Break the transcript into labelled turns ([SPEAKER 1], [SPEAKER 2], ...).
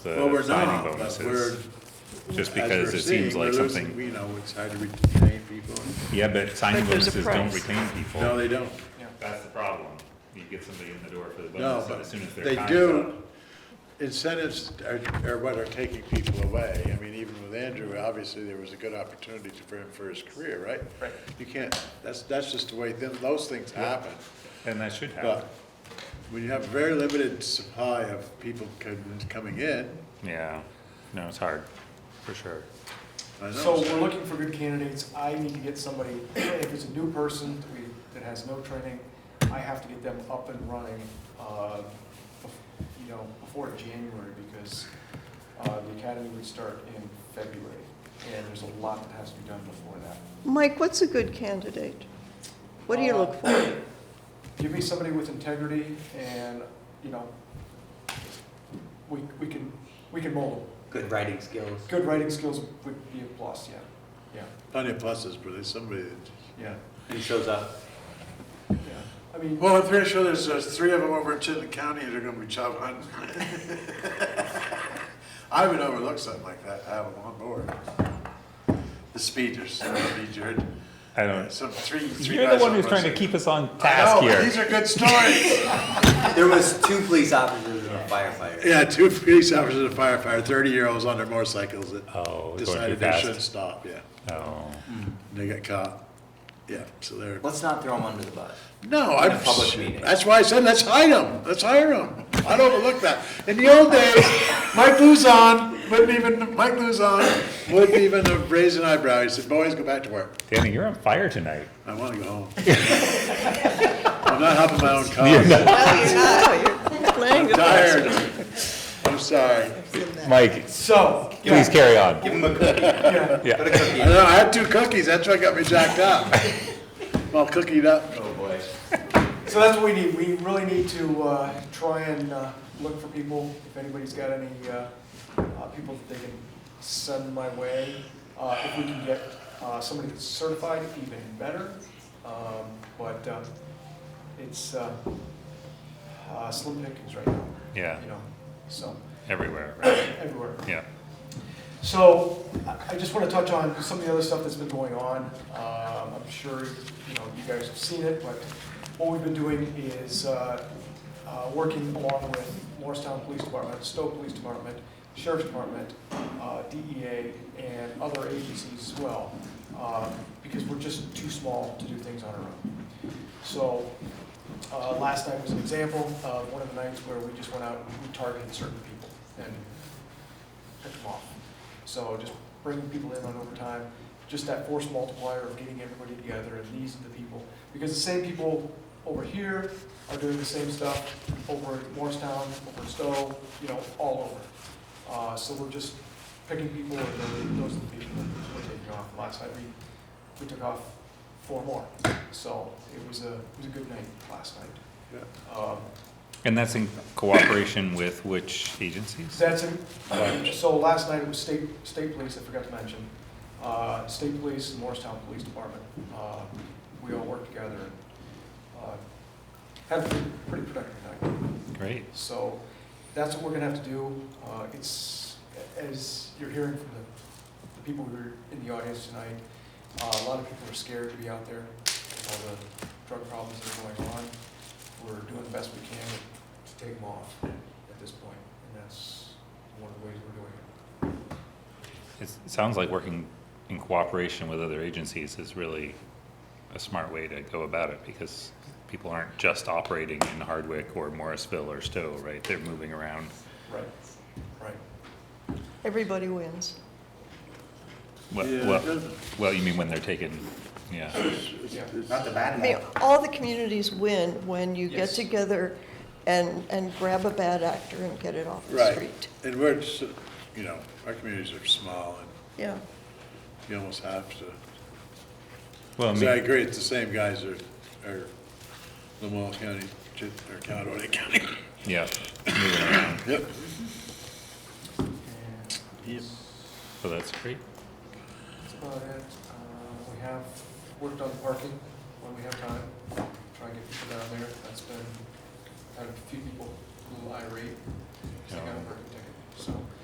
[SPEAKER 1] the
[SPEAKER 2] Well, we're
[SPEAKER 1] signing
[SPEAKER 2] not, but we're.
[SPEAKER 1] bonuses. Just
[SPEAKER 2] as
[SPEAKER 1] because
[SPEAKER 2] we're
[SPEAKER 1] it seems
[SPEAKER 2] seeing,
[SPEAKER 1] like
[SPEAKER 2] we're
[SPEAKER 1] something-
[SPEAKER 2] losing- You know, it's hard to retain people.
[SPEAKER 1] Yeah, but signing
[SPEAKER 3] But there's a
[SPEAKER 1] bonuses don't
[SPEAKER 3] price.
[SPEAKER 1] retain
[SPEAKER 2] No,
[SPEAKER 1] people.
[SPEAKER 2] they don't.
[SPEAKER 1] That's the problem. You get somebody in the door for the
[SPEAKER 2] No,
[SPEAKER 1] bonus, and
[SPEAKER 2] but
[SPEAKER 1] as soon as their
[SPEAKER 2] they
[SPEAKER 1] time's
[SPEAKER 2] do,
[SPEAKER 1] up-
[SPEAKER 2] incentives are, are what are taking people away. I mean, even with Andrew, obviously, there was a good opportunity for him for his career, right?
[SPEAKER 4] Right.
[SPEAKER 2] You can't, that's, that's just the way them- those things happen.
[SPEAKER 1] And that should happen.
[SPEAKER 2] But when you have a very limited supply of people c- coming in,
[SPEAKER 1] Yeah, no, it's hard, for sure.
[SPEAKER 2] I know.
[SPEAKER 4] So we're looking for good candidates. I need to get somebody, if it's a new person that we- that has no training, I have to get them up and running, uh, bef- you know, before January because uh, the academy would start in February. And there's a lot that has to be done before that.
[SPEAKER 3] Mike, what's a good candidate? What do you look for?
[SPEAKER 4] Uh, Give me somebody with integrity and, you know, we, we can, we can mold them.
[SPEAKER 5] Good writing skills.
[SPEAKER 4] Good writing skills would be a plus, yeah, yeah.
[SPEAKER 2] Plenty of pluses, but there's somebody that.
[SPEAKER 4] Yeah,
[SPEAKER 5] Who shows up?
[SPEAKER 4] yeah. I mean,
[SPEAKER 2] Well, I'm pretty sure there's, there's three of them over in Chittenden County that are gonna be job hunting. I would overlook something like that, have them on board. The speeders, that'd be Jared.
[SPEAKER 1] I don't,
[SPEAKER 2] Some three, three
[SPEAKER 1] you're the
[SPEAKER 2] guys
[SPEAKER 1] one
[SPEAKER 2] on
[SPEAKER 1] who's
[SPEAKER 2] one
[SPEAKER 1] trying to
[SPEAKER 2] side.
[SPEAKER 1] keep us on
[SPEAKER 2] I
[SPEAKER 1] task
[SPEAKER 2] know, but
[SPEAKER 1] here.
[SPEAKER 2] These are good stories.
[SPEAKER 5] There was two police officers and a firefighter.
[SPEAKER 2] Yeah, two police officers and a firefighter, thirty-year-olds on their motorcycles that
[SPEAKER 1] Oh, it's going too
[SPEAKER 2] decided they shouldn't
[SPEAKER 1] fast.
[SPEAKER 2] stop, yeah.
[SPEAKER 1] Oh,
[SPEAKER 2] They got caught. Yeah, so they're,
[SPEAKER 5] Let's not throw them under the bus.
[SPEAKER 2] no, I'm.
[SPEAKER 5] a public meeting.
[SPEAKER 2] That's why I said, let's hire them, let's hire them. I'd overlook that. In the old days, Mike Luzon wouldn't even, Mike Luzon wouldn't even have raised an eyebrow. He said, boys, go back to work.
[SPEAKER 1] Danny, you're on fire tonight.
[SPEAKER 2] I wanna go home. I'm not helping my own
[SPEAKER 1] You're
[SPEAKER 2] cause.
[SPEAKER 1] not-
[SPEAKER 3] No, you're playing
[SPEAKER 2] I'm
[SPEAKER 3] it.
[SPEAKER 2] tired. I'm sorry.
[SPEAKER 1] Mike,
[SPEAKER 4] so,
[SPEAKER 1] please
[SPEAKER 4] yeah,
[SPEAKER 1] carry on.
[SPEAKER 5] Give them a cookie.
[SPEAKER 4] yeah,
[SPEAKER 1] Yeah.
[SPEAKER 5] Put a
[SPEAKER 2] I
[SPEAKER 5] cookie. in.
[SPEAKER 2] know, I had two cookies, that's what got me jacked up. Well, cookied up.
[SPEAKER 5] Oh, boy.
[SPEAKER 4] so that's what we need, we really need to, uh, try and, uh, look for people, if anybody's got any, uh, uh, people that they can send my way. Uh, if we can get, uh, somebody that's certified, even better, um, but, um, it's, uh, uh, slim pickings right now.
[SPEAKER 1] Yeah.
[SPEAKER 4] You know, so,
[SPEAKER 1] Everywhere, right?
[SPEAKER 4] everywhere.
[SPEAKER 1] Yeah.
[SPEAKER 4] So I- I just want to touch on some of the other stuff that's been going on. Um, I'm sure, you know, you guys have seen it, but what we've been doing is uh, uh, working along with Morristown Police Department, Stowe Police Department, Sheriff's Department, uh, DEA, and other agencies as well, uh, because we're just too small to do things on our own. So uh, last night was an example of one of the nights where we just went out and we targeted certain people and pick them off. So just bringing people in on overtime, just that force multiplier of getting everybody together, and these are the people. Because the same people over here are doing the same stuff over at Morristown, over at Stowe, you know, all over. Uh, so we're just picking people, and then those are the people we're taking off. Last night, we, we took off four more, so it was a, it was a good night last night. Um,
[SPEAKER 1] And that's in cooperation with which agencies?
[SPEAKER 4] That's, in- so last night it was state, state police, I forgot to mention, uh, state police and Morristown Police Department. Uh, We all worked together and uh, had a pretty productive night.
[SPEAKER 1] Great.
[SPEAKER 4] So that's what we're gonna have to do. Uh, It's, as you're hearing from the the people who are in the audience tonight, uh, a lot of people are scared to be out there with all the drug problems that are going on. We're doing the best we can to take them off at this point, and that's one of the ways we're doing it.
[SPEAKER 1] It's- It sounds like working in cooperation with other agencies is really a smart way to go about it because people aren't just operating in Hardwick or Morrisville or Stowe, right? They're moving around.
[SPEAKER 4] Right. Right.
[SPEAKER 3] Everybody wins.
[SPEAKER 1] Well,
[SPEAKER 2] Yeah,
[SPEAKER 1] well,
[SPEAKER 2] doesn't-
[SPEAKER 1] well, you mean when they're taken, yeah.
[SPEAKER 4] Yeah.
[SPEAKER 5] Not the
[SPEAKER 3] I
[SPEAKER 5] bad
[SPEAKER 3] mean,
[SPEAKER 5] guy.
[SPEAKER 3] all the communities win when you get
[SPEAKER 4] Yes.
[SPEAKER 3] together and, and grab a bad actor and get it off the
[SPEAKER 2] Right,
[SPEAKER 3] street.
[SPEAKER 2] and we're, just, you know, our communities are small, and
[SPEAKER 3] Yeah.
[SPEAKER 2] you almost have to
[SPEAKER 1] Well, I
[SPEAKER 2] So I
[SPEAKER 1] mean,
[SPEAKER 2] agree, it's the same guys are, are Lamoille County, Chit- or Cowdoy County.
[SPEAKER 1] yeah, moving around.
[SPEAKER 2] Yep.
[SPEAKER 4] And
[SPEAKER 1] So that's great.
[SPEAKER 4] That's about it. Uh, We have worked on parking when we have time, try and get people down there. That's been, had a few people a little irate, because they got a parking ticket, so.